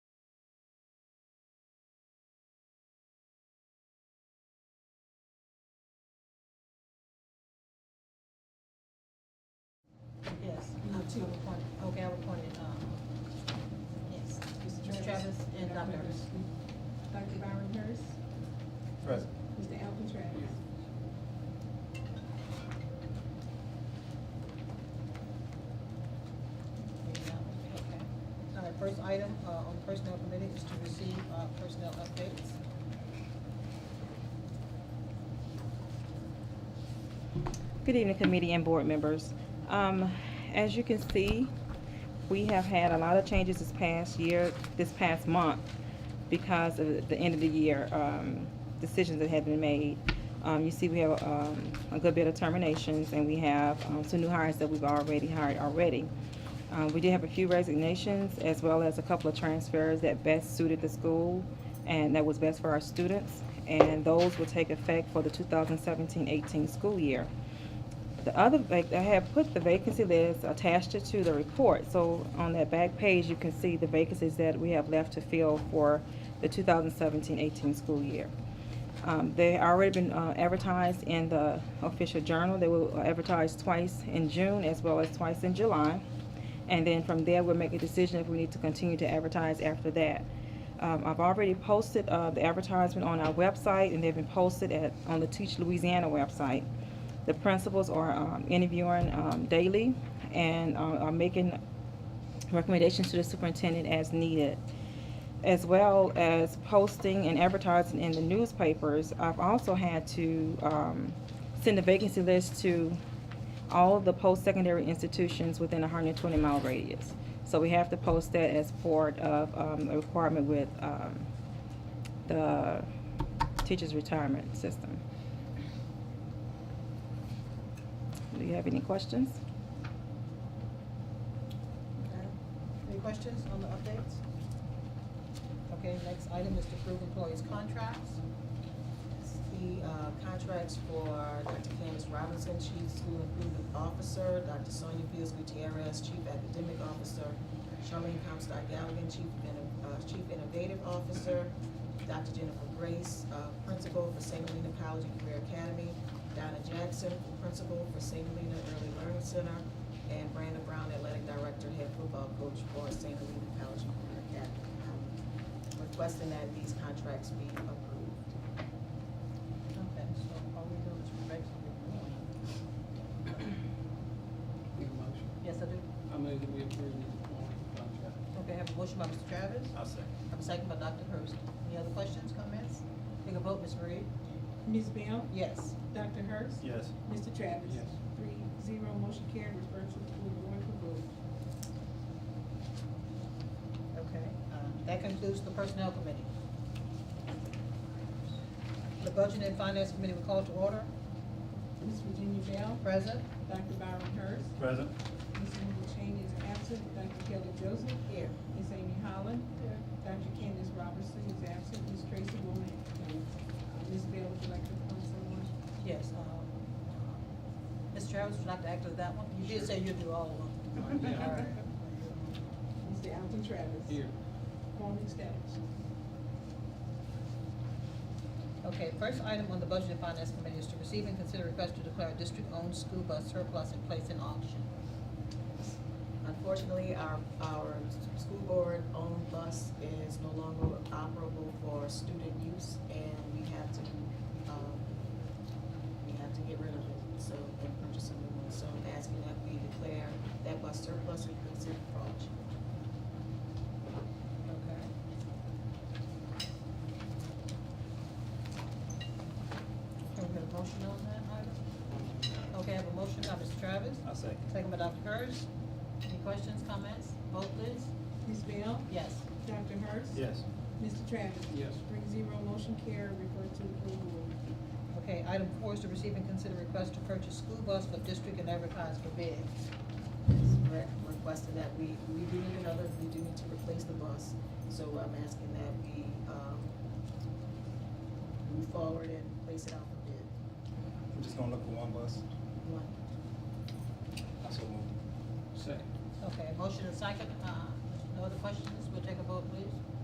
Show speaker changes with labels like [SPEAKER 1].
[SPEAKER 1] Travis.
[SPEAKER 2] um, Travis and Dr. Hurst.
[SPEAKER 1] Dr. Byron Hurst,
[SPEAKER 3] Present.
[SPEAKER 1] Mr. Alvin Travis.
[SPEAKER 2] Okay. All right, first item uh, on personnel committee is to receive uh, personnel updates.
[SPEAKER 4] Good evening, committee and board members. Um, As you can see, we have had a lot of changes this past year, this past month, because of the end of the year um, decisions that have been made. Um, You see, we have um, a good bit of terminations, and we have um, some new hires that we've already hired already. Uh, We did have a few resignations, as well as a couple of transfers that best suited the school and that was best for our students, and those will take effect for the 2017-18 school year. The other, vac- I have put the vacancy list attached it to the report, so on that back page, you can see the vacancies that we have left to fill for the 2017-18 school year. Um, They already been uh, advertised in the official journal, they will advertise twice in June as well as twice in July. And then from there, we'll make a decision if we need to continue to advertise after that. Um, I've already posted, uh, the advertisement on our website, and they've been posted at, on the Teach Louisiana website. The principals are, um, interviewing, um, daily and, uh, are making recommendations to the superintendent as needed. As well as posting and advertising in the newspapers, I've also had to, um, send a vacancy list to all of the post-secondary institutions within a hundred and twenty mile radius. So we have to post that as part of, um, a requirement with, um, the teachers' retirement system. Do you have any questions?
[SPEAKER 2] Okay. Any questions on the updates? Okay, next item is to approve employees' contracts. It's The uh, contracts for Dr. Candace Robinson, Chief School Improvement Officer, Dr. Sonia Fields Gutierrez, Chief Academic Officer, Charlene Comstock Galligan, Chief, Inno- uh, Chief Innovative Officer, Dr. Jennifer Grace, uh, Principal for St. Helena College and Career Academy, Donna Jackson, Principal for St. Helena Early Learning Center, and Brandon Brown, Athletic Director, Head Football Coach for St. Helena College and Career Academy. Um, Requesting that these contracts be approved. Okay, so all we do is
[SPEAKER 3] Need a motion?
[SPEAKER 2] Yes, I do.
[SPEAKER 3] I move that we approve the employment contract.
[SPEAKER 2] Okay, I have a motion by Mr. Travis,
[SPEAKER 3] I'll second.
[SPEAKER 2] I'm second by Dr. Hurst. Any other questions, comments? Take a vote, Ms. Reed.
[SPEAKER 1] Ms. Bell,
[SPEAKER 2] Yes.
[SPEAKER 1] Dr. Hurst.
[SPEAKER 3] Yes.
[SPEAKER 1] Mr. Travis.
[SPEAKER 3] Yes.
[SPEAKER 1] Three, zero, motion carried, refer to the full board for vote.
[SPEAKER 2] Okay, uh, that concludes the Personnel Committee. The Budget and Finance Committee will call to order.
[SPEAKER 1] Ms. Virginia Bell,
[SPEAKER 2] Present?
[SPEAKER 1] Dr. Byron Hurst,
[SPEAKER 3] Present.
[SPEAKER 1] Ms. Linda Cheney is absent, Dr. Kelly Joseph,
[SPEAKER 2] Here.
[SPEAKER 1] Ms. Amy Holland, Dr. Candace Robertson is absent, Ms. Tracy Womack. Uh, Ms. Bell, would you like to appoint someone?
[SPEAKER 2] Yes, um, Ms. Travis, would you like to act as that one? You did say you'd do all of them.
[SPEAKER 3] Yeah.
[SPEAKER 2] All right.
[SPEAKER 1] Mr. Alvin Travis.
[SPEAKER 3] Here.
[SPEAKER 1] Form established.
[SPEAKER 2] Okay, first item on the Budget and Finance Committee is to receive and consider request to declare a district-owned school bus surplus and place in auction.
[SPEAKER 5] Unfortunately, our, our school board-owned bus is no longer operable for student use, and we have to, um, we have to get rid of it, so, and purchase a new one. So I'm asking that we declare that bus surplus and consider for auction.
[SPEAKER 2] Okay. Can we get a motion on that item? Okay, I have a motion by Mr. Travis,
[SPEAKER 3] I'll second.
[SPEAKER 2] second by Dr. Hurst. Any questions, comments? Vote please.
[SPEAKER 1] Ms. Bell,
[SPEAKER 2] Yes.
[SPEAKER 1] Dr. Hurst.
[SPEAKER 3] Yes.
[SPEAKER 1] Mr. Travis.
[SPEAKER 3] Yes.
[SPEAKER 1] Three zero, motion carried, refer to the full board.
[SPEAKER 2] Okay, item four is to receive and consider request to purchase school bus for district and advertise for bid.
[SPEAKER 5] Re- Requesting that we, we do need another, we do need to replace the bus, so I'm asking that we, um, move forward and place it out for bid.
[SPEAKER 3] We're just gonna look for one bus.
[SPEAKER 5] One.
[SPEAKER 3] I so move. Second.
[SPEAKER 2] Okay, motion and second, uh, no other questions? We'll take a vote, please.